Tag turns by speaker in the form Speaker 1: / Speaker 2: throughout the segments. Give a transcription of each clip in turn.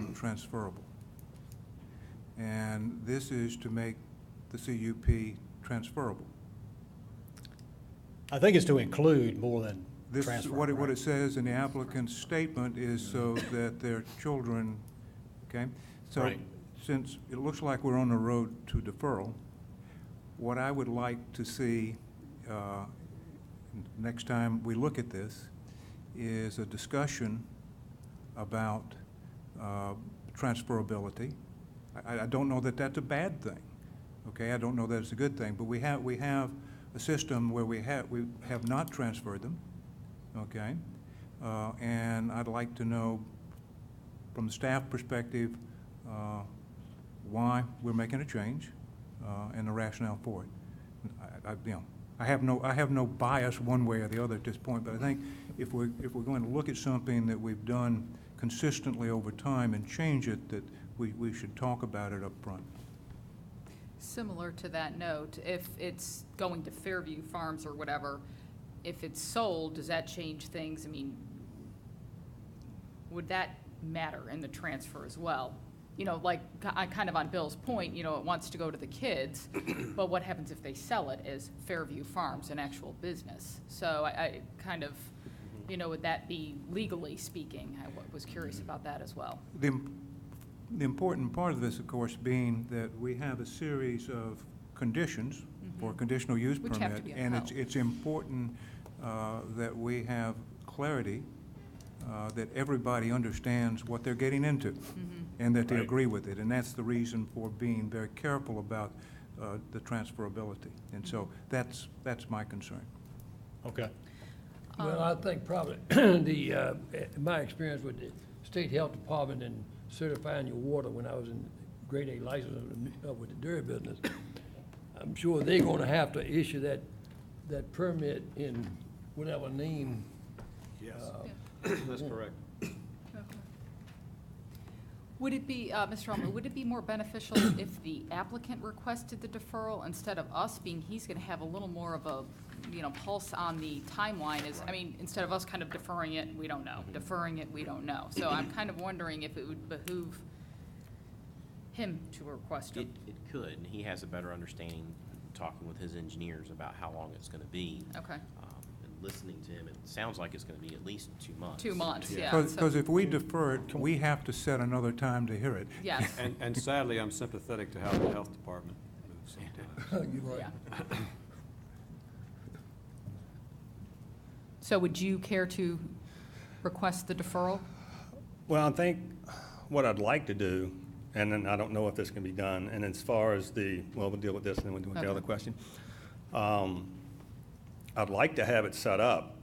Speaker 1: non-transferable. And this is to make the CUP transferable.
Speaker 2: I think it's to include more than
Speaker 1: This,
Speaker 2: transfer.
Speaker 1: what it, what it
Speaker 2: right?
Speaker 1: says in the applicant's statement is so that their children, okay? So
Speaker 2: Right.
Speaker 1: since it looks like we're on the road to deferral, what I would like to see, uh, n- next time we look at this, is a discussion about, uh, transferability. I, I- I don't know that that's a bad thing, okay? I don't know that it's a good thing, but we have, we have a system where we have, we have not transferred them, okay? Uh, and I'd like to know, from the staff perspective, uh, why we're making a change, uh, and the rationale for it. I, I, you know, I have no, I have no bias one way or the other at this point, but I think if we're, if we're going to look at something that we've done consistently over time and change it, that we, we should talk about it up front.
Speaker 3: Similar to that note, if it's going to Fairview Farms or whatever, if it's sold, does that change things? I mean, would that matter in the transfer as well? You know, like, ki- I- kind of on Bill's point, you know, it wants to go to the kids, but what happens if they sell it as Fairview Farms, an actual business? So I, I kind of, you know, would that be legally speaking? I wa- was curious about that as well.
Speaker 1: The, im- the important part of this, of course, being that we have a series of conditions for a conditional use permit.
Speaker 3: Mm-hmm. Which have to be
Speaker 1: And it's,
Speaker 3: upheld.
Speaker 1: it's important uh, that we have clarity, uh, that everybody understands what they're getting into,
Speaker 3: Mm-hmm.
Speaker 1: and that they
Speaker 4: Right.
Speaker 1: agree with it. And that's the reason for being very careful about uh, the transferability. And so
Speaker 3: Mm-hmm.
Speaker 1: that's, that's my concern.
Speaker 2: Okay.
Speaker 4: Well, I think probably the, uh, in my experience with the state health department and certifying your water when I was in grade A license of the- uh, with the dairy business, I'm sure they're gonna have to issue that, that permit in whatever name.
Speaker 5: Yes,
Speaker 4: uh,
Speaker 5: that's correct.
Speaker 3: Would it be, uh, Mr. Alman, would it be more beneficial if the applicant requested the deferral instead of us being, he's going to have a little more of a, you know, pulse on the timeline is, I mean, instead of us kind of deferring it, we don't know, deferring it, we don't know. So I'm kind of wondering if it would behoove him to request it.
Speaker 6: It, it could, and he has a better understanding, talking with his engineers about how long it's gonna be.
Speaker 3: Okay,
Speaker 6: Um, And listening to him, it sounds like it's gonna be at least two months.
Speaker 3: two months, yeah. so-
Speaker 1: Because if we defer it, we have to set another time to hear it.
Speaker 3: Yes,
Speaker 5: And, and sadly, I'm sympathetic to how the health department moves sometimes.
Speaker 4: You're right.
Speaker 3: yeah. So would you care to request the deferral?
Speaker 7: Well, I think what I'd like to do, and then I don't know if this can be done, and as far as the, well, we'll deal with this and then we'll deal with
Speaker 3: Okay.
Speaker 7: the other question. Um, I'd like to have it set up,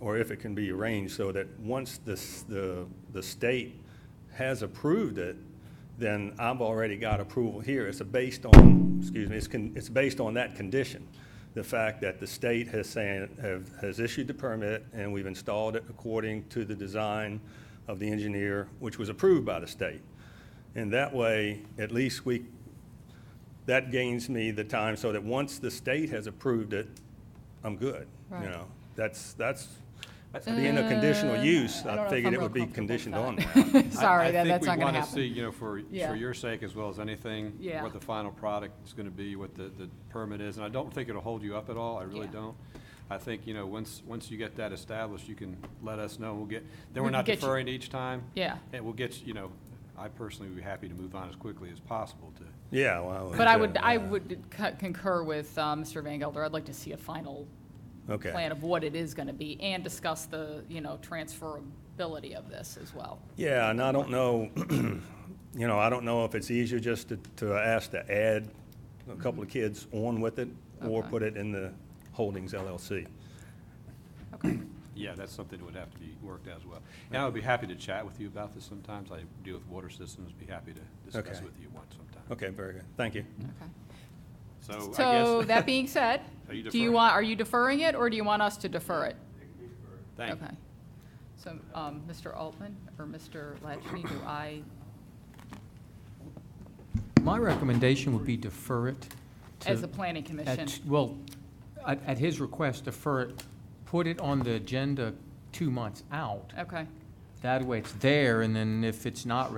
Speaker 7: or if it can be arranged, so that once this, the, the state has approved it, then I've already got approval here. It's a based on, excuse me, it's, con- it's based on that condition. The fact that the state has saying, have, has issued the permit and we've installed it according to the design of the engineer, which was approved by the state. And that way, at least we, that gains me the time so that once the state has approved it, I'm good,
Speaker 3: Right. Uh,
Speaker 7: you know? That's, that's, being a conditional use,
Speaker 3: I don't know
Speaker 7: I
Speaker 3: if
Speaker 7: figured
Speaker 3: I'm
Speaker 7: it
Speaker 3: real
Speaker 7: would be
Speaker 3: comfortable with
Speaker 7: conditioned
Speaker 3: that.
Speaker 7: on that.
Speaker 5: I-
Speaker 3: Sorry, that, that's not
Speaker 5: I
Speaker 3: gonna
Speaker 5: think we want to see,
Speaker 3: happen.
Speaker 5: you know, for,
Speaker 3: Yeah.
Speaker 5: for your sake as well as anything,
Speaker 3: Yeah.
Speaker 5: what the final product is going to be, what the, the permit is. And I don't think it'll hold you up at all, I really
Speaker 3: Yeah.
Speaker 5: don't. I think, you know, once, once you get that established, you can let us know, we'll get, then we're
Speaker 3: can
Speaker 5: not
Speaker 3: get you-
Speaker 5: deferring each time.
Speaker 3: Yeah.
Speaker 5: And we'll get, you know, I personally would be happy to move on as quickly as possible to,
Speaker 7: Yeah, well.
Speaker 3: But I would,
Speaker 7: yeah,
Speaker 3: I
Speaker 7: yeah.
Speaker 3: would co- concur with uh, Mr. Van Gelder. I'd like to see a final
Speaker 7: Okay.
Speaker 3: plan of what it is going to be and discuss the, you know, transferability of this as well.
Speaker 7: Yeah, and I don't know, you know, I don't know if it's easier just to, to ask to add a couple of kids on with it or
Speaker 3: Mm-hmm. Okay.
Speaker 7: put it in the Holdings LLC.
Speaker 5: yeah, that's something that would have to be worked out as well. And I would be happy to chat with you about this sometimes. I deal with water systems, be happy to discuss
Speaker 7: Okay.
Speaker 5: with you once sometime.
Speaker 7: Okay, very good. Thank you.
Speaker 3: Okay. So
Speaker 5: So Oh, I guess,
Speaker 3: that being said,
Speaker 5: Are you
Speaker 3: do you
Speaker 5: deferring?
Speaker 3: want, are you deferring it or do you want us to defer it?
Speaker 5: thank you.
Speaker 3: Okay. So, um, Mr. Altman or Mr. Latchney, do I,
Speaker 8: My recommendation would be defer it. to-
Speaker 3: as the planning
Speaker 8: at-
Speaker 3: commission?
Speaker 8: Well, at, at his request, defer it, put it on the agenda two months out.
Speaker 3: Okay.
Speaker 8: That way it's there, and then if it's not